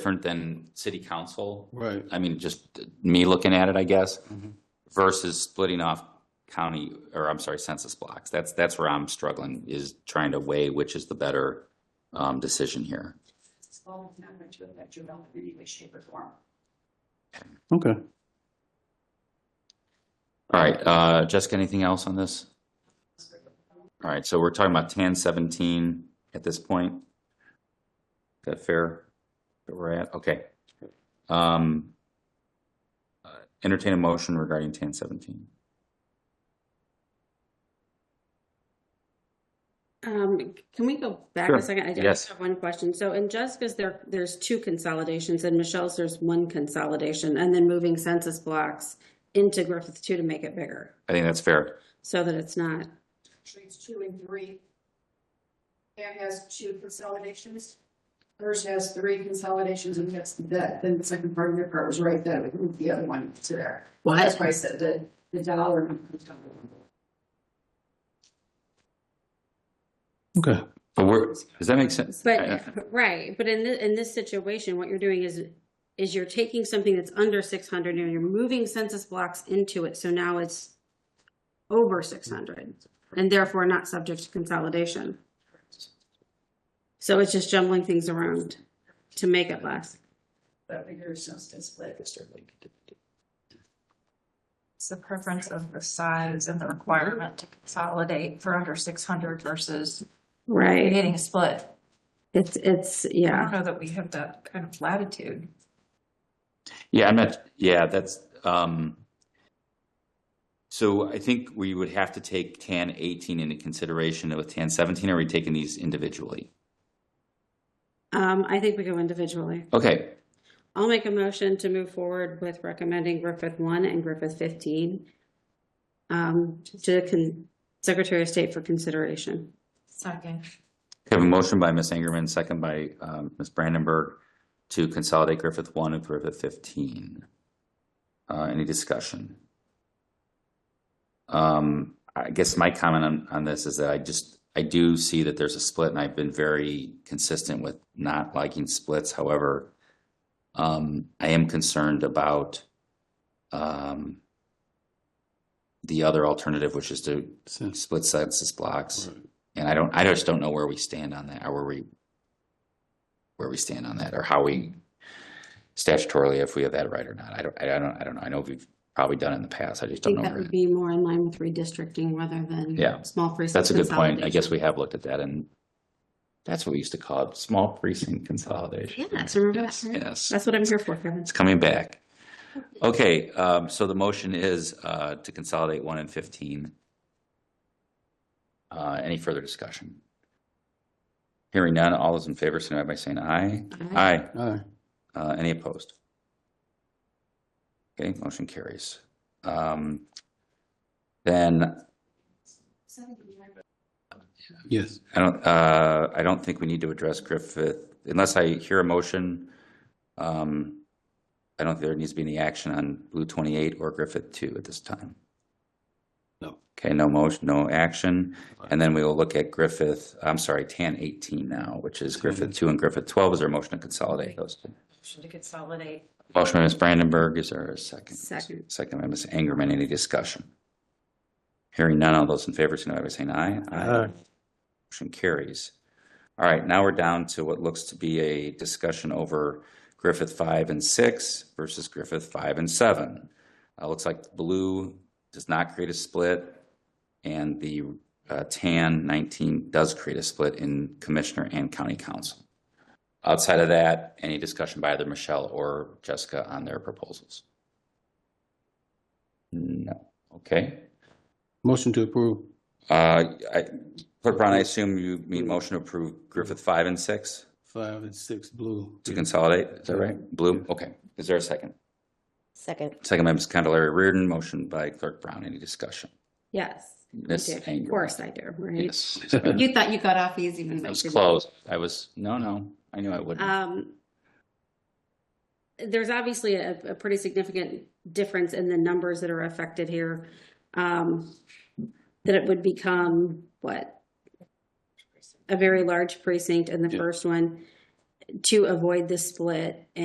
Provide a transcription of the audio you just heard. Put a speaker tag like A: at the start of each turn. A: different than city council.
B: Right.
A: I mean, just me looking at it, I guess,
B: Mhm.
A: versus splitting off county, or I'm sorry, census blocks. That's, that's where I'm struggling, is trying to weigh which is the better um, decision here.
C: It's all not going to affect your development in any way, shape, or form.
B: Okay.
A: All right, uh, Jessica, anything else on this? All right, so we're talking about tan seventeen at this point. Is that fair? That we're at, okay. Um, uh, entertain a motion regarding tan seventeen.
D: Um, can we go back
A: Sure.
D: a second? I
A: Yes.
D: just have one question. So in Jessica's, there, there's two consolidations, and Michelle's, there's one consolidation, and then moving census blocks into Griffith two to make it bigger,
A: I think that's fair.
D: so that it's not,
C: Actually, it's two and three. Pam has two consolidations. Hers has three consolidations and that's that, then the second part of your part was right, that would move the other one to there. That's why I said the, the dollar.
B: Okay.
A: But we're, does that make sense? Uh, I-
D: but, right, but in the, in this situation, what you're doing is, is you're taking something that's under six hundred and you're moving census blocks into it, so now it's over six hundred, and therefore not subject to consolidation. So it's just jumbling things around to make it less.
C: That figures just to split.
E: It's the preference of the size and the requirement to consolidate for under six hundred versus
D: Right.
E: creating a split.
D: It's, it's,
E: I don't
D: yeah.
E: know that we have that kind of latitude.
A: Yeah, I'm not, yeah, that's, um, so I think we would have to take tan eighteen into consideration with tan seventeen, or are we taking these individually?
D: Um, I think we go individually.
A: Okay,
D: I'll make a motion to move forward with recommending Griffith one and Griffith fifteen um, to the con- Secretary of State for consideration.
E: Second.
A: We have a motion by Ms. Angerman, second by um, Ms. Brandenburg to consolidate Griffith one and Griffith fifteen. Uh, Any discussion? Um, I guess my comment on, on this is that I just, I do see that there's a split and I've been very consistent with not liking splits. However, um, I am concerned about um, the other alternative, which is to
B: So-
A: split census blocks.
B: Right.
A: And I don't, I just don't know where we stand on that, or where we, where we stand on that, or how we statutorily, if we have that right or not. I don't, I don't, I don't know. I know we've probably done it in the past. I just
D: I
A: don't
D: think
A: know.
D: that
A: where
D: would be more in line with redistricting rather than
A: Yeah.
D: small precinct.
A: That's a good point. I
D: consolidation.
A: guess we have looked at that and that's what we used to call it, small precinct consolidation.
D: Yes, remember that?
A: Yes, yes.
D: That's what I'm here for, Kevin.
A: It's coming back. Okay, um, so the motion is, uh, to consolidate one and fifteen. Uh, any further discussion? Hearing none, all those in favor, signify by saying aye. Aye.
B: Aye.
A: Uh, any opposed? Okay, motion carries. Um, then
B: Yes.
A: I don't, uh, I don't think we need to address Griffith, unless I hear a motion. Um, I don't think there needs to be any action on Blue twenty-eight or Griffith two at this time.
B: No.
A: Okay, no motion, no action, and then we will look at Griffith, I'm sorry, tan eighteen now, which is Griffith two and Griffith twelve, is there a motion to consolidate those two?
E: Should consolidate.
A: Motion by Ms. Brandenburg, is there a second?
D: Second.
A: Second by Ms. Angerman, any discussion? Hearing none, all those in favor, signify by saying aye. Motion carries. All right, now we're down to what looks to be a discussion over Griffith five and six versus Griffith five and seven. Uh, looks like blue does not create a split, and the uh, tan nineteen does create a split in commissioner and county council. Outside of that, any discussion by either Michelle or Jessica on their proposals? No. Okay.
B: Motion to approve.
A: Uh, I- Clerk Brown, I assume you mean motion to approve Griffith five and six
B: Five and six blue.
A: to consolidate, Mm-hmm. is that right? Blue, okay. Is there a second?
F: Second,
A: Second by Ms. Candelaria Reardon, motion by Clerk Brown, any discussion?
D: Yes. I
A: Miss
D: do. Of
A: Anger.
D: course I do, right?
A: Yes. It
D: You thought you got off easy when I
A: was
D: did.
A: close. I was, no, no, I knew I wouldn't.
D: Um, there's obviously a, a pretty significant difference in the numbers that are affected here. Um, that it would become what? A very large precinct in the
B: Yeah.
D: first one. to avoid the split